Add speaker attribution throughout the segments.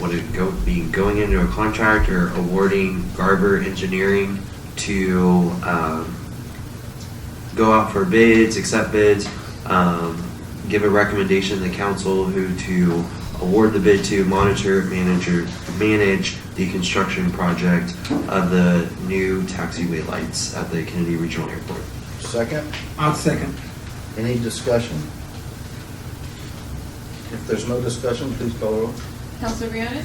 Speaker 1: would it go, be going into a contract or awarding Garber Engineering to, um, go out for bids, accept bids, um, give a recommendation to the council who to award the bid to, monitor, manager, manage the construction project of the new taxiway lights at the Kennedy Regional Airport.
Speaker 2: Second,
Speaker 3: I'll second.
Speaker 2: any discussion? If there's no discussion, please call roll.
Speaker 4: Counselor Bionis?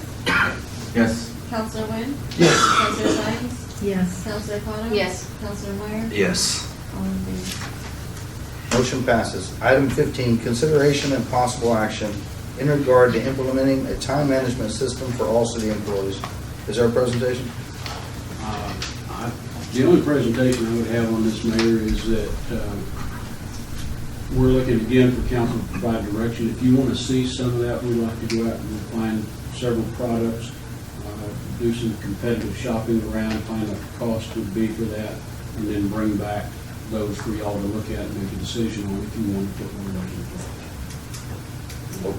Speaker 3: Yes.
Speaker 4: Counselor Wynn?
Speaker 3: Yes.
Speaker 4: Counselor Sines?
Speaker 5: Yes.
Speaker 4: Counselor O'Connor?
Speaker 6: Yes.
Speaker 4: Counselor Meyer?
Speaker 1: Yes.
Speaker 4: All in favor.
Speaker 2: Motion passes. Item 15, consideration and possible action in regard to implementing a time management system for all city employees. Is there a presentation?
Speaker 7: Uh, I- The only presentation I would have on this, Mayor, is that um, we're looking again for council to provide direction. If you want to see some of that, we'd like to go out and find several products, uh, do some competitive shopping around, find what the cost would be for that, and then bring back those for y'all to look at and make a decision on if you want to put one of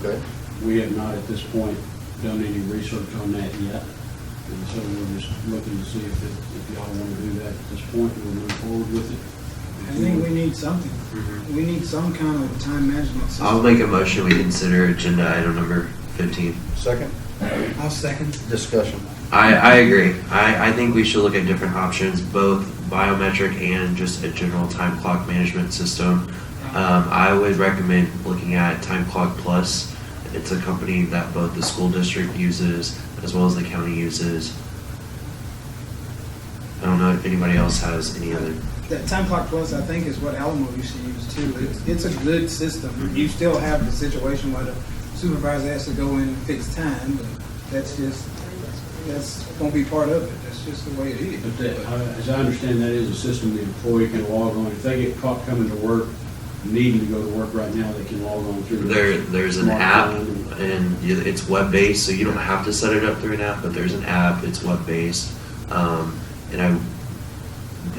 Speaker 7: those in
Speaker 2: Okay.
Speaker 7: place. We have not at this point done any research on that yet, and so we're just looking to see if, it- if y'all want to do that at this point, we'll move forward with it.
Speaker 3: I think we need something. We need some kind of time management
Speaker 1: I'll
Speaker 3: system.
Speaker 1: make a motion, we consider agenda item number fifteen.
Speaker 2: Second,
Speaker 3: I'll second.
Speaker 2: discussion.
Speaker 1: I, I agree. I, I think we should look at different options, both biometric and just a general time clock management system. Um, I would recommend looking at Time Clock Plus. It's a company that both the school district uses as well as the county uses. I don't know if anybody else has any other.
Speaker 3: That time clock plus, I think, is what Alamo used to use too. It's, it's a good system. You still have the situation where the supervisor has to go in and fix time, but that's just, that's, won't be part of it. That's just the way it is.
Speaker 7: But that, I- as I understand, that is a system the employee can log on, if they get caught coming to work, needing to go to work right now, they can log on through.
Speaker 1: There, there's an app
Speaker 7: smartphone.
Speaker 1: and you- it's web-based, so you don't have to set it up through an app, but there's an app, it's web-based. Um, and I,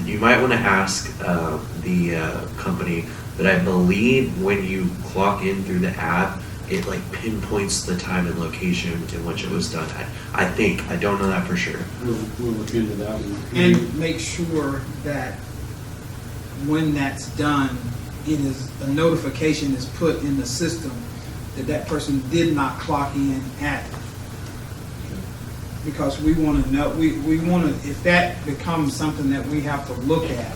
Speaker 1: you might want to ask, uh, the, uh, company, but I believe when you clock in through the app, it like pinpoints the time and location in which it was done at. I think, I don't know that for sure.
Speaker 7: We'll, we'll look into that one.
Speaker 1: Mm-hmm.
Speaker 3: And make sure that when that's done, it is, a notification is put in the system that that person did not clock in at. Because we want to know, we, we want to, if that becomes something that we have to look at,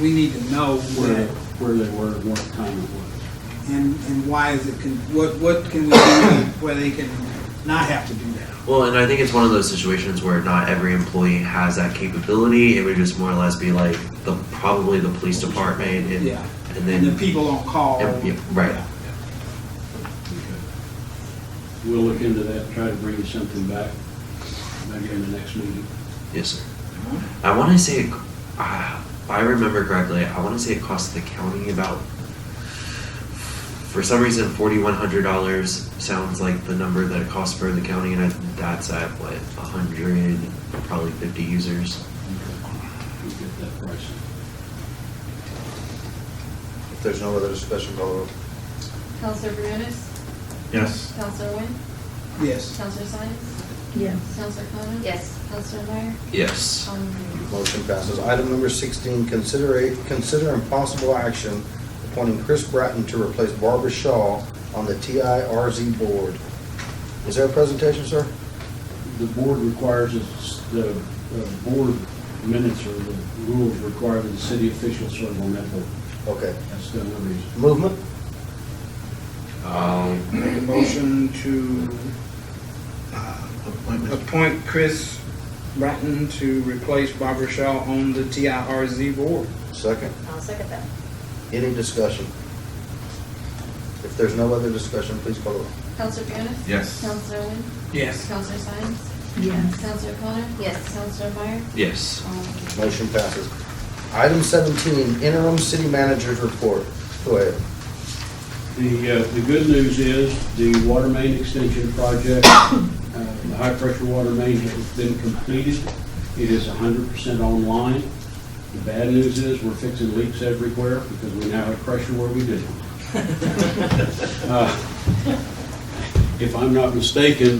Speaker 3: we need to know
Speaker 7: Where,
Speaker 3: that
Speaker 7: where they were, and what time it was.
Speaker 3: and, and why is it, con- what, what can we do where they can not have to do that?
Speaker 1: Well, and I think it's one of those situations where not every employee has that capability. It would just more or less be like the, probably the police department and,
Speaker 3: Yeah.
Speaker 1: and then.
Speaker 3: And the people on call.
Speaker 1: Yeah, yeah, right.
Speaker 7: We'll look into that, try to bring you something back, maybe in the next meeting.
Speaker 1: Yes, sir. I want to say, it, uh, if I remember correctly, I want to say it cost the county about, for some reason, forty-one hundred dollars sounds like the number that it costs for the county, and I, that's at what a hundred, probably fifty users.
Speaker 7: We'll get that price.
Speaker 2: If there's no other discussion, call roll.
Speaker 4: Counselor Bionis?
Speaker 8: Yes.
Speaker 4: Counselor Wynn?
Speaker 3: Yes.
Speaker 4: Counselor Sines?
Speaker 5: Yes.
Speaker 4: Counselor O'Connor?
Speaker 6: Yes.
Speaker 4: Counselor Meyer?
Speaker 1: Yes.
Speaker 4: All in favor.
Speaker 2: Motion passes. Item number 16, consider, consider impossible action appointing Chris Bratton to replace Barbara Shaw on the TIRZ board. Is there a presentation, sir?
Speaker 7: The board requires, us- the uh, board minutes or the rules require that the city officials serve on that board.
Speaker 2: Okay.
Speaker 7: That's the only reason.
Speaker 2: Movement?
Speaker 1: Um,
Speaker 3: Make a motion to uh,
Speaker 8: Appointment.
Speaker 3: appoint Chris Bratton to replace Barbara Shaw on the TIRZ board.
Speaker 2: Second.
Speaker 6: I'll second that.
Speaker 2: Any discussion? If there's no other discussion, please call the roll.
Speaker 4: Counselor Bionis?
Speaker 8: Yes.
Speaker 4: Counselor Wynn?
Speaker 3: Yes.
Speaker 4: Counselor Sines?
Speaker 5: Yes.
Speaker 4: Counselor O'Connor?
Speaker 6: Yes.
Speaker 4: Counselor Meyer?
Speaker 1: yes.
Speaker 4: All in favor.
Speaker 2: Motion passes. Item 17, interim city manager's report. Go ahead.
Speaker 7: The, uh, the good news is the water main extension project, uh, the high pressure water main has been completed. It is hundred percent online. The bad news is we're fixing leaks everywhere because we now have pressure where we didn't. Uh, If I'm not mistaken,